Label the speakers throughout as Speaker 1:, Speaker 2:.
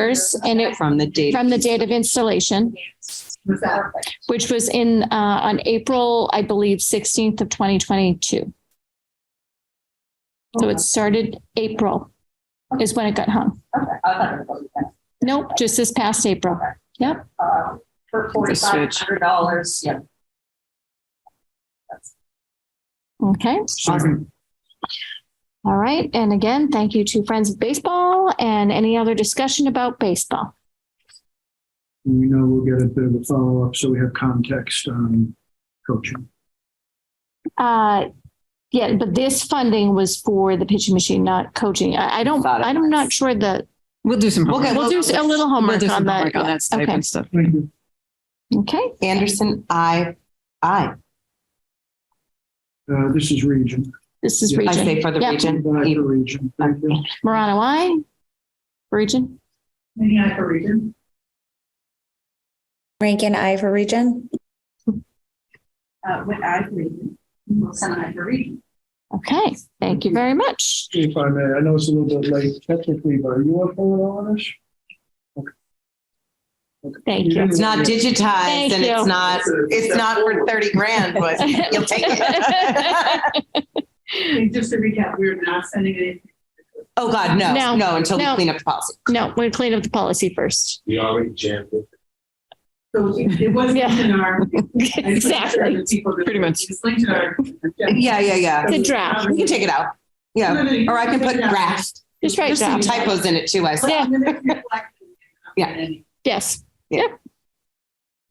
Speaker 1: years and it
Speaker 2: from the date.
Speaker 1: from the date of installation, which was in, uh, on April, I believe, sixteenth of twenty twenty-two. So it started April is when it got hung. Nope, just this past April.
Speaker 3: For
Speaker 2: The
Speaker 3: forty-five
Speaker 2: switch.
Speaker 3: hundred dollars, yeah.
Speaker 1: Okay.
Speaker 2: Awesome.
Speaker 1: All right. And again, thank you to Friends of Baseball and any other discussion about baseball.
Speaker 4: We know we'll get a bit of a follow-up, so we have context on coaching.
Speaker 1: Uh, yeah, but this funding was for the pitching machine, not coaching. I, I don't,
Speaker 2: Thought it
Speaker 1: I'm
Speaker 2: was.
Speaker 1: not sure that,
Speaker 5: We'll do some. homework.
Speaker 1: we'll do a little
Speaker 5: We'll
Speaker 1: homework
Speaker 5: do
Speaker 1: on
Speaker 5: some
Speaker 1: that.
Speaker 5: homework on that type
Speaker 1: Okay.
Speaker 5: of stuff.
Speaker 4: Thank you.
Speaker 1: Okay.
Speaker 2: Anderson, I, I,
Speaker 4: Uh, this is region.
Speaker 1: This is
Speaker 4: Yeah. I
Speaker 1: region.
Speaker 2: I say for the
Speaker 1: Yep.
Speaker 4: Back
Speaker 2: region.
Speaker 4: to region. Thank you.
Speaker 1: Marana, why? Region?
Speaker 3: Any for reason?
Speaker 6: Rankin I for region.
Speaker 3: Uh, with I for reason. We'll send I for reason.
Speaker 1: Okay, thank you very much.
Speaker 4: If I may, I know it's a little bit late technically, but are you up for it on this? Okay. Okay.
Speaker 1: Thank you.
Speaker 2: It's not digitized
Speaker 1: Thank
Speaker 2: and
Speaker 1: you.
Speaker 2: it's not, it's not for thirty grand, but you'll take it.
Speaker 3: And just to recap, we're not sending anything.
Speaker 2: Oh, God,
Speaker 1: No.
Speaker 2: no, no, until we
Speaker 1: No.
Speaker 2: clean up the policy.
Speaker 1: No, we're clean up the policy first.
Speaker 7: We already jammed it.
Speaker 3: So it wasn't
Speaker 1: Yeah.
Speaker 3: in our.
Speaker 1: Exactly.
Speaker 5: Pretty much.
Speaker 3: It's linked to our.
Speaker 2: Yeah, yeah, yeah.
Speaker 1: The draft.
Speaker 2: We can take it out. Yeah, or I can put draft.
Speaker 1: Just right
Speaker 2: There's some
Speaker 1: draft.
Speaker 2: typos in it too, I see.
Speaker 1: Yeah.
Speaker 2: Yeah.
Speaker 1: Yes.
Speaker 2: Yeah.
Speaker 1: Yep.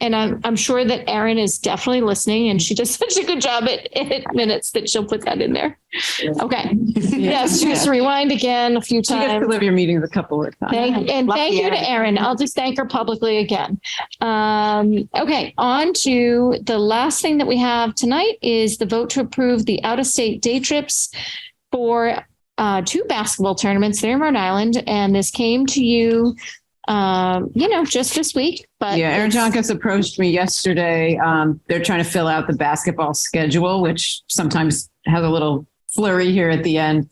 Speaker 1: And I'm, I'm sure that Erin is definitely listening and she does such a good job at, at minutes that she'll put that in there. Okay. Yes, just rewind again a few
Speaker 5: She gets
Speaker 1: times.
Speaker 5: to live your meetings a couple of times.
Speaker 1: Thank, and
Speaker 2: Lucky
Speaker 1: thank you to Erin. I'll just thank her publicly again. Um, okay, on to the last thing that we have tonight is the vote to approve the out-of-state day trips for uh, two basketball tournaments there in Rhode Island, and this came to you, um, you know, just this week, but
Speaker 5: Yeah, Aaron
Speaker 1: it's-
Speaker 5: Jonkis approached me yesterday. Um, they're trying to fill out the basketball schedule, which sometimes has a little flurry here at the end.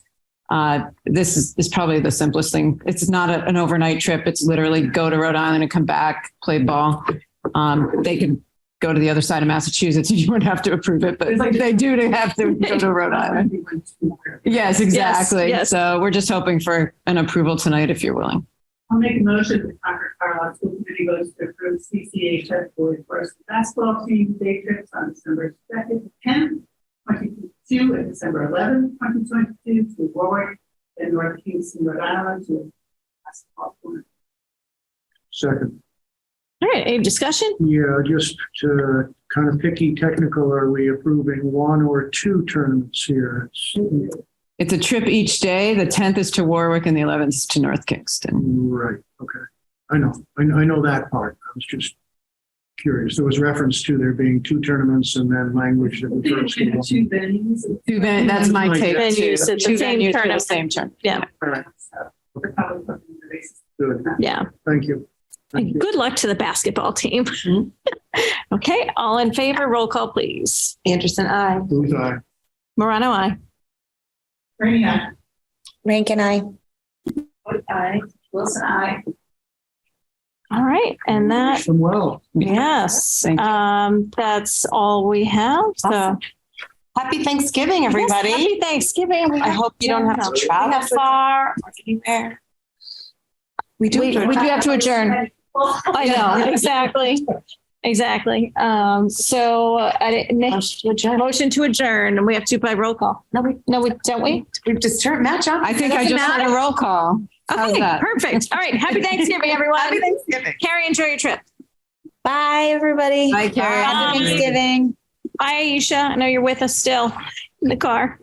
Speaker 5: Uh, this is, is probably the simplest thing. It's not a- an overnight trip. It's literally go to Rhode Island and come back, play ball. Um, they can go to the other side of Massachusetts and you wouldn't have to approve it, but
Speaker 3: It's like-
Speaker 5: they do to have to go to Rhode
Speaker 3: uh,
Speaker 5: Island. Yes, exactly.
Speaker 1: yes.
Speaker 5: So we're just hoping for an approval tonight if you're willing.
Speaker 3: I'll make a motion that Concord Carlisle School Committee votes to approve CCHS Boys First Basketball Team day trips on December second, tenth, twenty twenty-two, and December eleventh, twenty twenty-two, to Warwick and North Kingston, Rhode Island, to a basketball tournament.
Speaker 4: Second,
Speaker 1: All right, any discussion?
Speaker 4: yeah, just to kind of picky technical, are we approving one or two tournaments here? It's-
Speaker 5: It's a trip each day. The 10th is to Warwick and the 11th is to North Kingston.
Speaker 4: Right, okay. I know, I, I know that part. I was just curious. There was reference to there being two tournaments and then language that
Speaker 3: Two
Speaker 4: refers to one.
Speaker 3: venues.
Speaker 5: Two ven- that's my
Speaker 4: Like
Speaker 5: take.
Speaker 4: that.
Speaker 5: too.
Speaker 1: Venues at the
Speaker 5: Two
Speaker 1: same
Speaker 5: venues for the
Speaker 1: tournament.
Speaker 5: Same turn.
Speaker 3: So, we're probably putting the basis.
Speaker 4: Good,
Speaker 1: Yeah.
Speaker 4: thank you. Thank you.
Speaker 1: Good luck to the basketball team.
Speaker 5: Mhm.
Speaker 1: Okay, all in favor, roll call, please.
Speaker 2: Anderson, I.
Speaker 4: Booth, aye.
Speaker 1: Morano, I.
Speaker 3: Ernie, I.
Speaker 6: Rankin I.
Speaker 3: Wood, I. Wilson, I.
Speaker 1: All right, and that
Speaker 4: Wish them well.
Speaker 1: Yes,
Speaker 5: Thank you.
Speaker 1: um, that's all we have, so.
Speaker 2: Awesome. Happy Thanksgiving,
Speaker 1: Yes,
Speaker 2: everybody.
Speaker 1: happy Thanksgiving. We
Speaker 2: I hope you don't have to travel far or anywhere. We do.
Speaker 1: We, we do have to adjourn. I know, exactly, exactly. Um, so, I, didn't- Nick, motion to adjourn, and we have to by roll call. No, we. No, we, don't we?
Speaker 2: We've just turned match up.
Speaker 5: I think I just had a roll call. How's
Speaker 1: Okay,
Speaker 5: that?
Speaker 1: perfect. All right, happy Thanksgiving, everyone.
Speaker 2: Happy Thanksgiving.
Speaker 1: Carrie, enjoy your trip.
Speaker 6: Bye, everybody.
Speaker 5: Bye, Carrie.
Speaker 6: Happy Thanksgiving.
Speaker 1: Bye, Aisha, I know you're with us still in the car.